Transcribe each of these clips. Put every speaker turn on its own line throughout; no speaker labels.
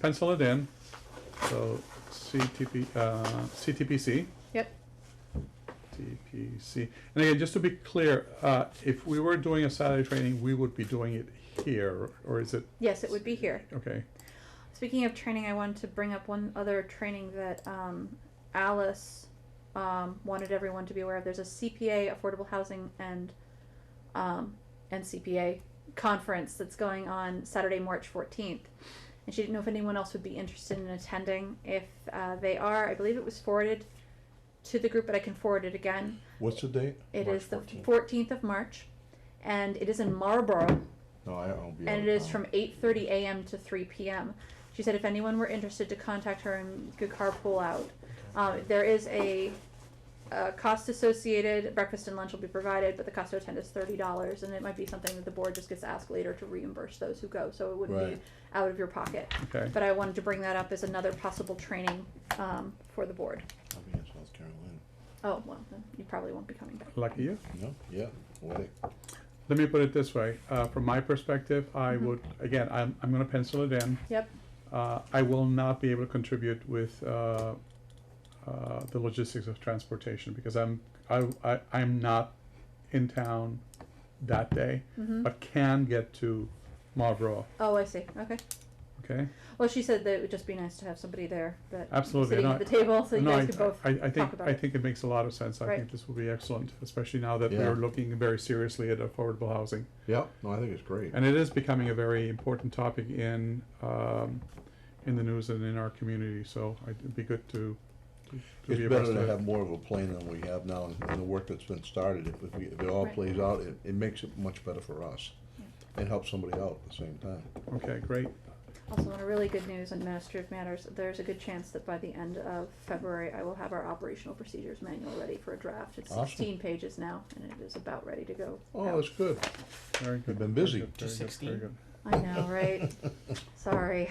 pencil it in. So CTP, uh, CTPC.
Yep.
TPC. And again, just to be clear, uh, if we were doing a Saturday training, we would be doing it here, or is it,
Yes, it would be here.
okay,
Speaking of training, I wanted to bring up one other training that um, Alice um, wanted everyone to be aware of. There's a CPA, affordable housing, and um, and CPA conference that's going on Saturday, March 14th. And she didn't know if anyone else would be interested in attending. If uh, they are, I believe it was forwarded to the group, but I can forward it again.
What's the date?
It
March
is the
14th.
14th of March, and it is in Marlborough.
No, I won't be. out
and
of
it is
um,
town.
from 8:30 a.m. to 3 p.m. She said if anyone were interested to contact her and could carpool out. Um, there is a, a cost associated. Breakfast and lunch will be provided, but the cost to attend is thirty dollars, and it might be something that the board just gets asked later to reimburse those who go, so it wouldn't be
Right.
out of your pocket.
okay.
But I wanted to bring that up as another possible training um, for the board.
I'll be in South Carolina.
Oh well, then you probably won't be coming back.
Lucky you.
No, yeah, wedding.
Let me put it this way, uh, from my perspective, I
Mhm.
would, again, I'm, I'm gonna pencil it in.
Yep.
Uh, I will not be able to contribute with, uh, uh, the logistics of transportation, because I'm, I, I, I'm not in town that day,
hmm
but can get to Marlboro,
Oh, I see. Okay.
okay?
Well, she said that it would just be nice to have somebody there that
Absolutely,
sitting
no,
at the table, so you
No,
guys
I-
could both.
I, I think,
talk about
I
it.
think it makes a lot of sense. I
Right.
think this will be excellent, especially now that
Yeah.
we're looking very seriously at affordable housing.
Yeah, no, I think it's great.
And it is becoming a very important topic in, um, in the news and in our community, so I- it'd be good to, to
It's
be
better
abreast
to
of
have
it.
more of a plan than we have now, and and the work that's been started, if, if we, if it all
Right.
plays out, it, it makes it much better for us. And helps somebody out at the same time.
Okay, great.
Also, on a really good news on administrative matters, there's a good chance that by the end of February, I will have our operational procedures manual ready for a draft. It's
Awesome.
sixteen pages now, and it is about ready to go.
Oh,
out.
that's good.
Very good.
You've been
very
busy.
good,
To
very good, very
16?
good.
I know, right? Sorry.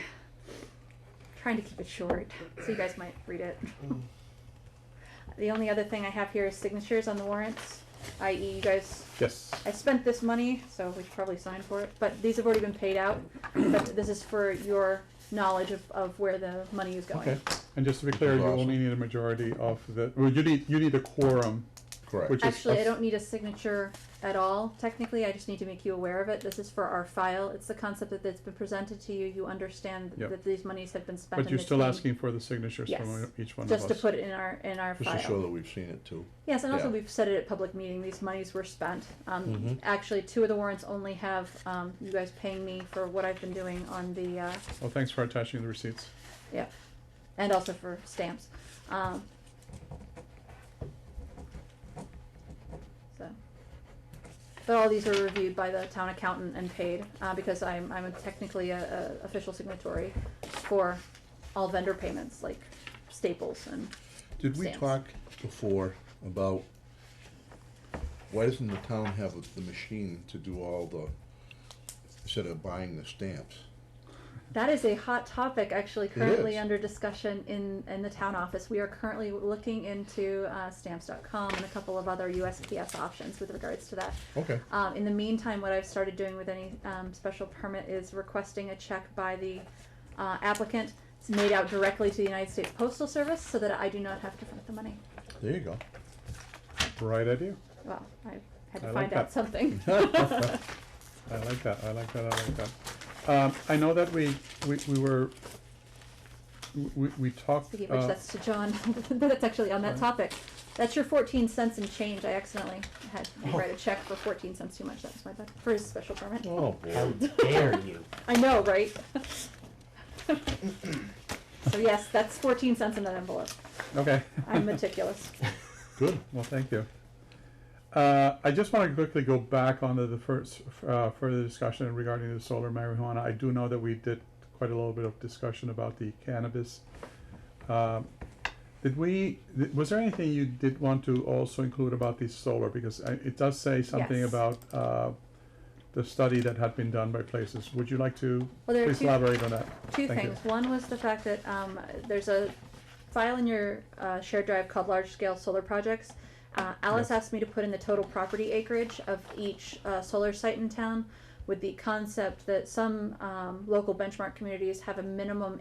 Trying to keep it short, so you guys might read it.
Mm.
The only other thing I have here is signatures on the warrants, i.e. you guys
Yes,
I spent this money, so we should probably sign for it, but these have already been paid out. But this is for your knowledge of, of where the money is going.
Okay,
and just to be clear, you
Awesome.
only need a majority of the, well, you need, you need a quorum,
correct.
Which- is
Actually, I
us.
don't need a signature at all, technically, I just need to make you aware of it. This is for our file, it's the concept that, that's been presented to you, you understand
Yep.
that these monies have been spent
but
and
you're
it's
still
being-
asking for the signatures
Yes.
from each one of us.
Just to put it in our, in our
Just to show
file.
that we've seen it too.
Yes, and also
yeah.
we've said it at public meeting, these monies were spent. Um,
Mm-hmm.
Mhm.
actually, two of the warrants only have, um, you guys paying me for what I've been doing on the, uh,
Well, thanks for attaching the receipts.
Yeah, and also for stamps. Um, so, but all these are reviewed by the town accountant and paid uh, because I'm I'm technically a, a official signatory for all vendor payments like Staples and
Did we
Stamps.
talk before about why doesn't the town have the machine to do all the, instead of buying the stamps?
That is a hot topic actually currently
is.
under discussion in, in the town office. We are currently looking into uh, stamps.com and a couple of other USPS options with regards to that.
Okay.
Um, in the meantime, what I've started doing with any um, special permit is requesting a check by the uh, applicant. It's made out directly to the United States Postal Service so that I do not have to front the money.
There you go.
Right idea.
Well, I had to
I like
find out
that.
something.
I like that, I like that, I like that. Um, I know that we, we, we were, we, we talked,
Speaking of which,
uh,
that's to John, but it's actually on that
Right.
topic. That's your fourteen cents and change. I accidentally had
Oh.
write a check for fourteen cents too much. That was my bad, for his special permit.
Oh,
How
boy.
dare you?
I know, right? So yes, that's fourteen cents in that envelope.
okay.
I'm meticulous.
Good.
Well, thank you. Uh, I just want to quickly go back onto the first, uh, further discussion regarding the solar marijuana. I do know that we did quite a little bit of discussion about the cannabis. Um, Did we, th- was there anything you did want to also include about the solar? Because I- it does say something
Yes.
about uh, the study that had been done by places. Would you like to
Well, there are
please
two-
elaborate on that?
Two
Thank you.
things. One was the fact that um, there's a file in your uh, shared drive called large scale solar projects. Uh, Alice
Yes.
asked me to put in the total property acreage of each uh, solar site in town with the concept that some um, local benchmark communities have a minimum